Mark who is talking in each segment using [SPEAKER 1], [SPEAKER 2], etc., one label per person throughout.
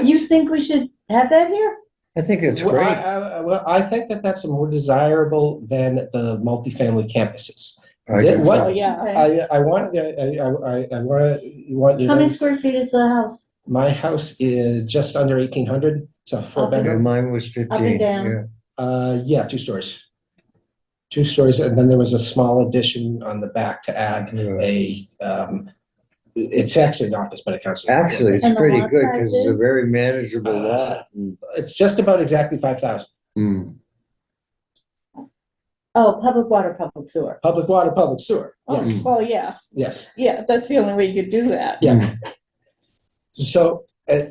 [SPEAKER 1] You think we should have that here?
[SPEAKER 2] I think it's
[SPEAKER 3] Well, I,
[SPEAKER 2] great.
[SPEAKER 3] I- I- well, I think that that's more desirable than the multifamily campuses.
[SPEAKER 2] I think
[SPEAKER 3] what-
[SPEAKER 1] Oh,
[SPEAKER 2] so.
[SPEAKER 1] yeah. okay.
[SPEAKER 3] I, I want, I, I, I- I want, you want, you
[SPEAKER 1] How many
[SPEAKER 3] to-
[SPEAKER 1] square feet is the house?
[SPEAKER 3] my house is just under eighteen hundred, so four
[SPEAKER 1] Okay.
[SPEAKER 2] Yeah,
[SPEAKER 3] bedroom,
[SPEAKER 2] Mine was fifteen,
[SPEAKER 1] down.
[SPEAKER 2] yeah.
[SPEAKER 3] uh, yeah, two stories. Two stories, and then there was a small addition on the back to add
[SPEAKER 2] yeah.
[SPEAKER 3] a, um, it's actually an office, but it counts. as an apartment.
[SPEAKER 2] Actually, it's
[SPEAKER 1] And the
[SPEAKER 2] pretty
[SPEAKER 1] lot
[SPEAKER 2] good because it's a
[SPEAKER 1] sizes?
[SPEAKER 2] very manageable
[SPEAKER 3] Uh,
[SPEAKER 2] lot. and-
[SPEAKER 3] It's just about exactly five thousand. hmm.
[SPEAKER 2] Mm.
[SPEAKER 1] Oh, public water, public sewer.
[SPEAKER 3] Public water, public sewer, yes,
[SPEAKER 2] Mm.
[SPEAKER 4] Oh, well, yeah,
[SPEAKER 3] yes,
[SPEAKER 4] yeah, that's the only way you could do that.
[SPEAKER 3] yeah.
[SPEAKER 2] Mm.
[SPEAKER 3] So, uh,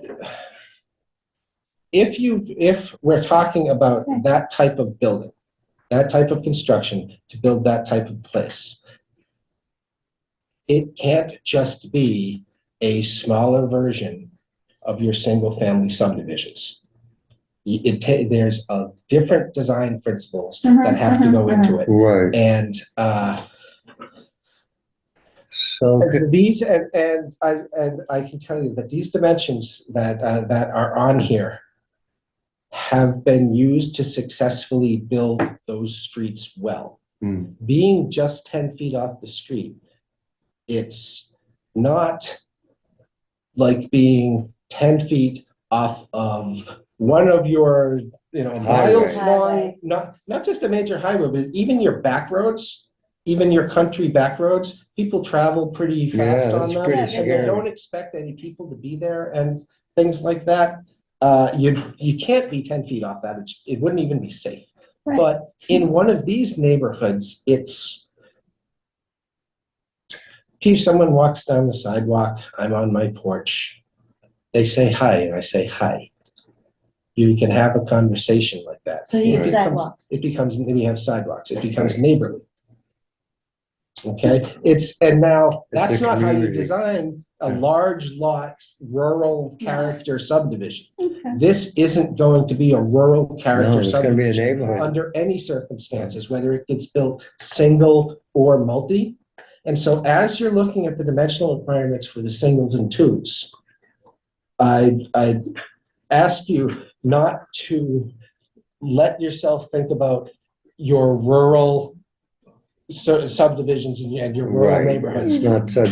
[SPEAKER 3] if you, if we're talking about that type of building, that type of construction, to build that type of place, it can't just be a smaller version of your single-family subdivisions. Y- It, ta- there's a different design principles that have to go into it.
[SPEAKER 2] Right,
[SPEAKER 3] And, uh,
[SPEAKER 2] so,
[SPEAKER 3] As These, and, and I, and I can tell you that these dimensions that, uh, that are on here have been used to successfully build those streets well.
[SPEAKER 2] mm,
[SPEAKER 3] Being just ten feet off the street, it's not like being ten feet off of one of your, you know, miles
[SPEAKER 1] Highway.
[SPEAKER 3] long,
[SPEAKER 1] Highway.
[SPEAKER 3] not, not just a major highway, but even your back roads, even your country back roads, people travel pretty
[SPEAKER 2] Yeah,
[SPEAKER 3] fast on
[SPEAKER 2] that's
[SPEAKER 3] them.
[SPEAKER 2] pretty
[SPEAKER 3] And they
[SPEAKER 2] scary.
[SPEAKER 3] don't expect any people to be there and things like that. Uh, you, you can't be ten feet off that. It's, it wouldn't even be safe.
[SPEAKER 1] Right.
[SPEAKER 3] But in one of these neighborhoods, it's gee, someone walks down the sidewalk, I'm on my porch. They say hi and I say hi. You can have a conversation like that.
[SPEAKER 1] So you
[SPEAKER 3] It
[SPEAKER 1] have
[SPEAKER 3] becomes-
[SPEAKER 1] sidewalks.
[SPEAKER 3] It becomes, we have sidewalks. It becomes neighborly. Okay, it's, and now,
[SPEAKER 2] It's a
[SPEAKER 3] that's not how you
[SPEAKER 2] community.
[SPEAKER 3] design a
[SPEAKER 2] Yeah.
[SPEAKER 3] large lot, rural
[SPEAKER 1] No.
[SPEAKER 3] character subdivision.
[SPEAKER 4] Okay.
[SPEAKER 3] This isn't going to be a rural
[SPEAKER 2] no,
[SPEAKER 3] character
[SPEAKER 2] it's gonna be a
[SPEAKER 3] subdivision
[SPEAKER 2] neighborhood.
[SPEAKER 3] under any circumstances, whether it gets built single or multi. And so as you're looking at the dimensional requirements for the singles and twos, I, I ask you not to let yourself think about your rural cer- subdivisions and your- and your rural
[SPEAKER 2] Right,
[SPEAKER 3] neighborhoods
[SPEAKER 2] it's not such.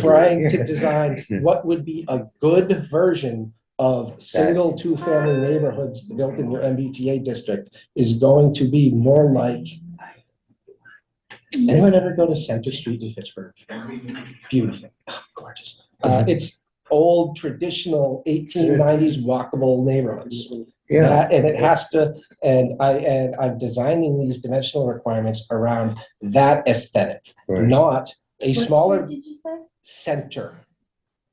[SPEAKER 3] trying to design what would be a good version of single, two-family neighborhoods built in your MBTA district is going to be more like. Anyone ever go to Center Street in Fitchburg? Beautiful, oh, gorgeous. Uh,
[SPEAKER 2] Mm-hmm.
[SPEAKER 3] it's old, traditional eighteen nineties walkable neighborhoods.
[SPEAKER 2] Yeah,
[SPEAKER 3] That- And it has to, and I, and I'm designing these dimensional requirements around that aesthetic,
[SPEAKER 2] right.
[SPEAKER 3] not a
[SPEAKER 1] What
[SPEAKER 3] smaller
[SPEAKER 1] street Did you say?
[SPEAKER 3] center.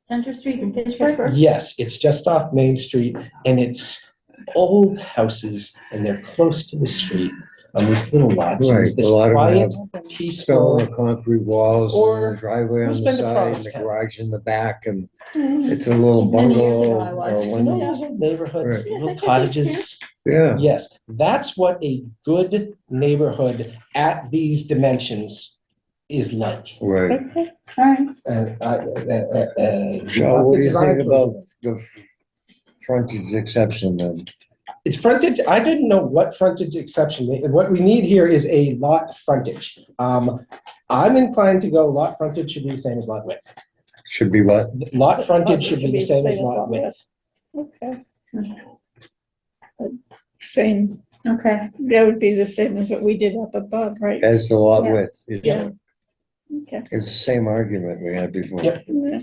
[SPEAKER 1] Center Street in Pittsburgh?
[SPEAKER 3] Yes, it's just off Main Street and it's old houses and they're close to the street on these little lots. and It's
[SPEAKER 2] Right,
[SPEAKER 3] this
[SPEAKER 2] a lot of
[SPEAKER 3] quiet,
[SPEAKER 2] Stone
[SPEAKER 3] peaceful,
[SPEAKER 2] or concrete walls
[SPEAKER 3] Or-
[SPEAKER 2] and a driveway on
[SPEAKER 3] Who's
[SPEAKER 2] the
[SPEAKER 3] been to
[SPEAKER 2] side, and the
[SPEAKER 3] Provincetown?
[SPEAKER 2] garage in the back, and
[SPEAKER 1] Hmm.
[SPEAKER 2] it's a little
[SPEAKER 4] Many years ago
[SPEAKER 2] bungalow.
[SPEAKER 4] I
[SPEAKER 2] or
[SPEAKER 4] was.
[SPEAKER 3] you
[SPEAKER 2] one-
[SPEAKER 3] know, those old neighborhoods,
[SPEAKER 4] Right.
[SPEAKER 3] little cottages.
[SPEAKER 2] Yeah,
[SPEAKER 3] Yes, that's what a good neighborhood at these dimensions is like.
[SPEAKER 2] right.
[SPEAKER 1] Okay, all right.
[SPEAKER 3] And I- uh, uh, uh,
[SPEAKER 2] So what do you
[SPEAKER 3] design
[SPEAKER 2] think
[SPEAKER 3] for-
[SPEAKER 2] about the frontage exception then?
[SPEAKER 3] It's frontage, I didn't know what frontage exception, they- what we need here is a lot frontage. Um, I'm inclined to go lot frontage should be the same as lot width.
[SPEAKER 2] Should be what?
[SPEAKER 3] Lot frontage should be the same as lot width.
[SPEAKER 4] Okay.
[SPEAKER 1] Hmm.
[SPEAKER 4] Same,
[SPEAKER 1] Okay,
[SPEAKER 4] that would be the same as what we did up above, right?
[SPEAKER 2] As the lot
[SPEAKER 1] Yeah.
[SPEAKER 2] width. It's-
[SPEAKER 4] Yeah. Okay.
[SPEAKER 2] It's the same argument we had before.
[SPEAKER 3] Yep.
[SPEAKER 4] Yeah.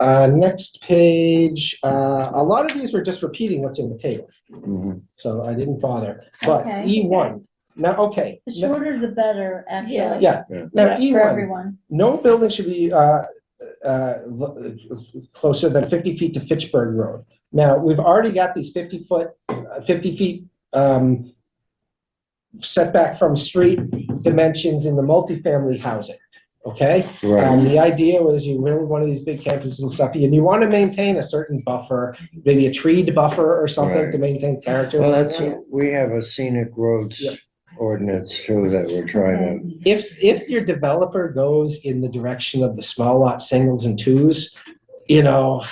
[SPEAKER 3] Uh, next page, uh, a lot of these were just repeating what's in the table,
[SPEAKER 2] Mhm.
[SPEAKER 3] so I didn't bother. But
[SPEAKER 1] Okay.
[SPEAKER 3] E one, now, okay,
[SPEAKER 1] the
[SPEAKER 3] now-
[SPEAKER 1] shorter the better, actually.
[SPEAKER 3] yeah, now
[SPEAKER 4] Yeah,
[SPEAKER 3] E
[SPEAKER 1] For
[SPEAKER 3] one,
[SPEAKER 1] everyone.
[SPEAKER 3] no building should be, uh, uh, lo- closer than fifty feet to Fitchburg Road. Now, we've already got these fifty foot, uh, fifty feet, um, setback from street dimensions in the multifamily housing, okay?
[SPEAKER 2] Right,
[SPEAKER 3] Um, the idea was you build one of these big campuses and stuff, and you want to maintain a certain buffer, maybe a treed buffer or something
[SPEAKER 2] Right.
[SPEAKER 3] to maintain character.
[SPEAKER 2] well, that's, we have a scenic roads
[SPEAKER 3] Yep.
[SPEAKER 2] ordinance too that we're trying
[SPEAKER 3] If, if your developer goes in the direction of the small lot singles and twos, you know,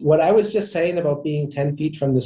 [SPEAKER 3] what I was just saying about being ten feet from the